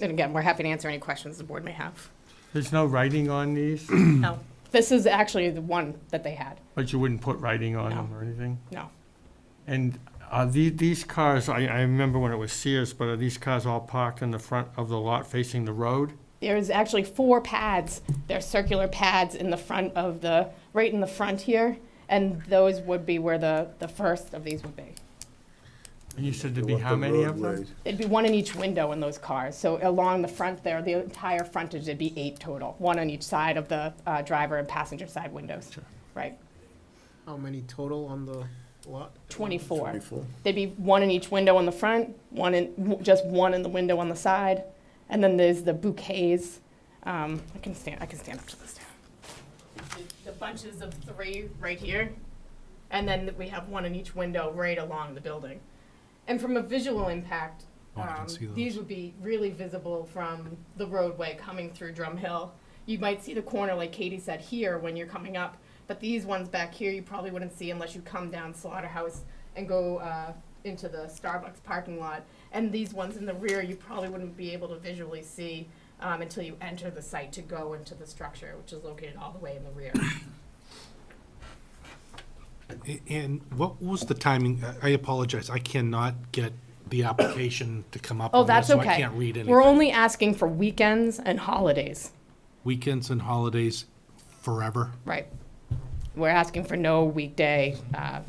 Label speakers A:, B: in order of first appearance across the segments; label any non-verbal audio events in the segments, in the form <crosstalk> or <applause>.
A: And again, we're happy to answer any questions the board may have.
B: There's no writing on these,
A: No, this is actually the one that they had.
B: but you wouldn't put writing on them or anything?
A: No,
B: And are the- these cars, I, I remember when it was Sears, but are these cars all parked in the front of the lot facing the road?
A: there's actually four pads. They're circular pads in the front of the, right in the front here, and those would be where the, the first of these would be.
B: And you said
C: Go
B: there'd be
C: up
B: how
C: the
B: many of them?
C: roadway.
A: There'd be one in each window in those cars. So along the front there, the entire frontage, there'd be eight total, one on each side of the uh, driver and passenger side windows. Right,
D: How many total on the lot?
A: 24.
C: Twenty-four.
A: There'd be one in each window on the front, one in, w- just one in the window on the side. And then there's the bouquets. Um, I can stand, I can stand up to this. The bunches of three right here. And then we have one in each window right along the building. And from a visual impact,
E: Oh, I can
A: um,
E: see those.
A: these would be really visible from the roadway coming through Drum Hill. You might see the corner, like Katie said, here when you're coming up, but these ones back here you probably wouldn't see unless you come down Slaughterhouse and go uh, into the Starbucks parking lot. And these ones in the rear you probably wouldn't be able to visually see um, until you enter the site to go into the structure, which is located all the way in the rear.
E: A- And what was the timing? I- I apologize, I cannot get the application to come up
A: Oh,
E: on this,
A: that's
E: so
A: okay.
E: I can't read
A: We're
E: anything.
A: only asking for weekends and holidays.
E: Weekends and holidays forever.
A: Right. We're asking for no weekday uh,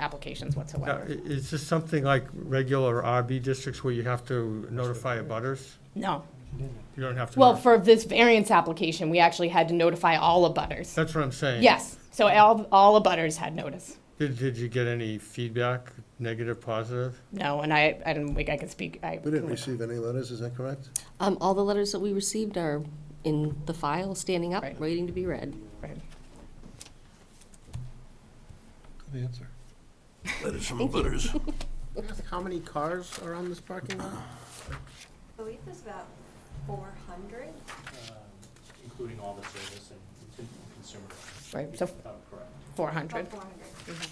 A: applications
B: Now,
A: whatsoever.
B: i- Is this something like regular RB districts where you have to notify abutters?
A: No.
B: You don't have to.
A: Well,
B: notif-
A: for this variance application, we actually had to notify all abutters.
B: That's what I'm saying.
A: Yes, so all, all abutters had notice.
B: Did, did you get any feedback, negative, positive?
A: No, and I, I didn't think I could speak, I,
C: We didn't receive any letters, is that correct?
F: Um, all the letters that we received are in the file, standing up,
A: Right.
F: waiting to be read.
A: right.
E: Good answer.
C: Letters from butters.
D: Can I ask How many cars are on this parking lot?
G: I believe there's about four hundred.
H: um, including all the service and con- consumer,
A: right, so
H: if I'm correct.
A: four hundred.
G: About four hundred.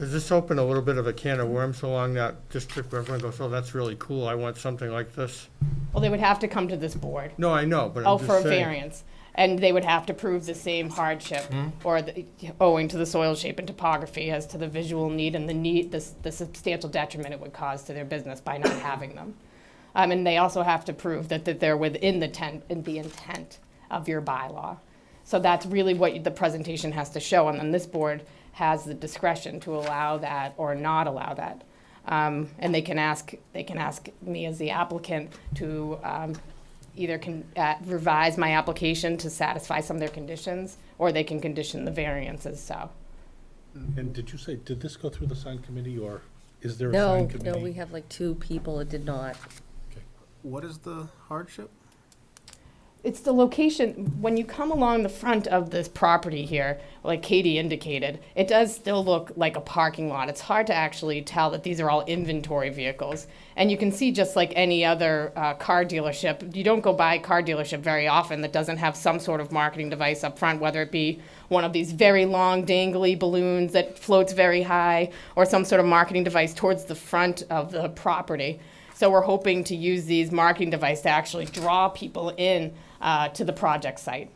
B: Does this open a little bit of a can of worms along that district where everyone goes, oh, that's really cool, I want something like this?
A: Well, they would have to come to this board.
B: No, I know, but
A: Oh,
B: I'm
A: for a
B: just saying.
A: variance. And they would have to prove the same hardship
B: Hmm?
A: or the, owing to the soil shape and topography as to the visual need and the need, the, s- the substantial detriment it would cause to their business by not having them. Um, and they also have to prove that, that they're within the tent, in the intent of your bylaw. So that's really what the presentation has to show, and then this board has the discretion to allow that or not allow that. Um, and they can ask, they can ask me as the applicant to, um, either can, uh, revise my application to satisfy some of their conditions, or they can condition the variances, so.
E: And did you say, did this go through the sign committee, or is there a
F: No,
E: sign committee?
F: no, we have like two people It did not.
D: What is the hardship?
A: It's the location, when you come along the front of this property here, like Katie indicated, it does still look like a parking lot. It's hard to actually tell that these are all inventory vehicles. And you can see, just like any other uh, car dealership, you don't go by a car dealership very often that doesn't have some sort of marketing device up front, whether it be one of these very long dangly balloons that floats very high, or some sort of marketing device towards the front of the property. So we're hoping to use these marketing devices to actually draw people in uh, to the project site.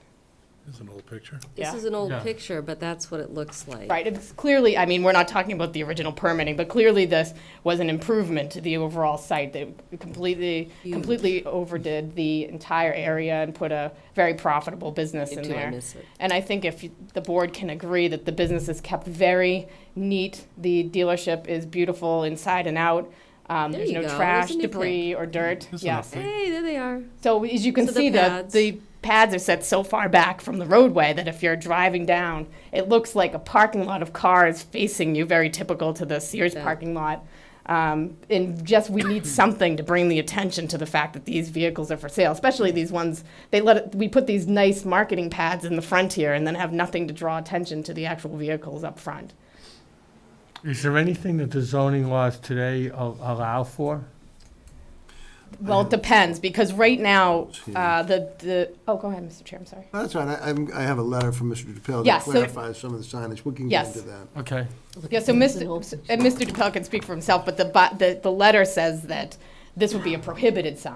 E: This is an old picture.
A: Yeah.
F: This is an old
B: Yeah.
F: picture, but that's what it looks like.
A: Right, it's clearly, I mean, we're not talking about the original permitting, but clearly this was an improvement to the overall site. They completely, completely overdid the entire area and put a very profitable business in
F: Until I
A: there.
F: miss it.
A: And I think if you- the board can agree that the business is kept very neat, the dealership is beautiful inside and out. Um,
F: There
A: There's
F: you
A: no
F: go.
A: trash,
F: Isn't it
A: debris, or dirt,
E: This is
A: yes.
E: enough.
F: Hey, there they are.
A: So as you can
F: So the
A: see, the,
F: pads.
A: the pads are set so far back from the roadway that if you're driving down, it looks like a parking lot of cars facing you, very typical to the Sears
F: Yeah.
A: parking lot. Um, and just, we
F: <clears throat>
A: need something to bring the attention to the fact that these vehicles are for sale, especially these ones, they let, it- we put these nice marketing pads in the front here and then have nothing to draw attention to the actual vehicles up front.
B: Is there anything that the zoning laws today al- allow for?
A: Well, it depends, because right now, uh, the, the, oh, go ahead, Mr. Chair, I'm sorry.
C: That's right, I, I'm- I have a letter from Mr. DePiero that
A: Yes, so-
C: clarifies some of the signage, we can get
A: Yes.
C: into that.
B: Okay.
A: Yeah, so Mr., and Mr. DePel can speak for himself, but the, bu- the, the letter says that this would be a prohibited sign.